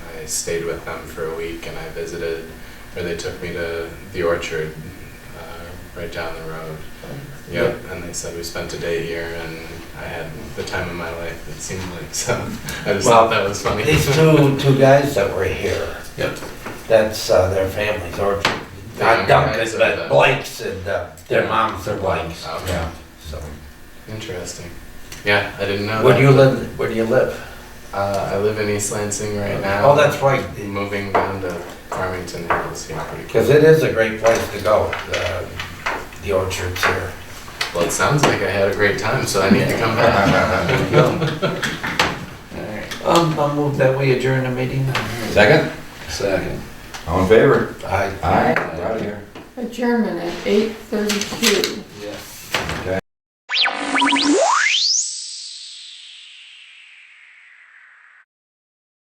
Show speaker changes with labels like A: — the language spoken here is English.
A: stayed with them for a week and I visited, or they took me to the orchard uh, right down the road. Yep, and they said we spent a day here and I had the time of my life, it seemed like. So I just
B: Well,
A: thought that was funny.
B: These two, two guys that were here,
A: Yep.
B: that's uh, their families, or
A: The
B: not
A: younger
B: Duncan,
A: guys are
B: but
A: the-
B: Blake's and uh, their moms are Blake's.
A: Oh, Okay.
B: Yeah. So,
A: Interesting. Yeah, I didn't know
B: where
A: that.
B: do you live, where do you live?
A: Uh, I live in East Lansing right now.
B: Oh, that's right,
A: Moving down to Farmington Hills here pretty quick.
B: because it is a great place to go, uh, the orchards here.
A: Well, it sounds like I had a great time, so I need to come back.
B: Um, I'll move that we adjourn the meeting.
C: Second?
A: Second.
C: All in favor?
B: Aye.
C: Aye. We're out of here.
D: Adjournment at eight thirty-two.